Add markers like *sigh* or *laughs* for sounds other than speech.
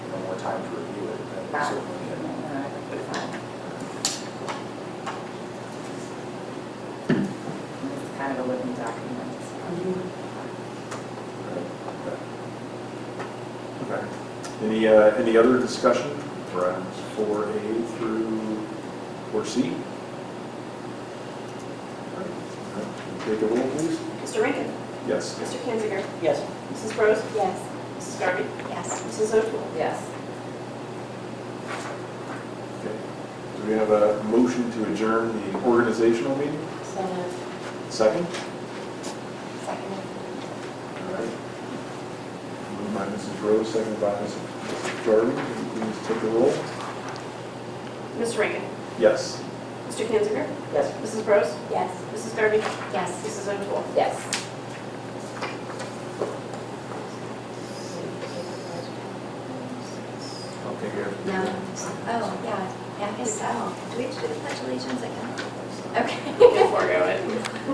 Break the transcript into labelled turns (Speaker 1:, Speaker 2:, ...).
Speaker 1: that. And I think we're fine. It's kind of a living document.
Speaker 2: Okay. Any, uh, any other discussion for items four A through four C? Take a roll, please.
Speaker 3: Mr. Rankin?
Speaker 2: Yes.
Speaker 3: Mr. Kanziger?
Speaker 4: Yes.
Speaker 3: Mrs. Bros?
Speaker 5: Yes.
Speaker 3: Mrs. Garvey?
Speaker 5: Yes.
Speaker 3: Mrs. O'Toole?
Speaker 1: Yes.
Speaker 2: Okay. Do we have a motion to adjourn the organizational meeting?
Speaker 5: So moved.
Speaker 2: Second?
Speaker 5: Second.
Speaker 2: All right. Moved by Mrs. Rose, seconded by Mrs. Jordan. Can you please take a roll?
Speaker 3: Mr. Rankin?
Speaker 2: Yes.
Speaker 3: Mr. Kanziger?
Speaker 4: Yes.
Speaker 3: Mrs. Bros?
Speaker 5: Yes.
Speaker 3: Mrs. Garvey?
Speaker 5: Yes.
Speaker 3: Mrs. O'Toole? *laughs*
Speaker 1: Yes.
Speaker 2: Okay, here.
Speaker 5: No. Oh, yeah. Yeah, I guess so. Do we have to do the pledge allegiance again? Okay.
Speaker 3: Forego it.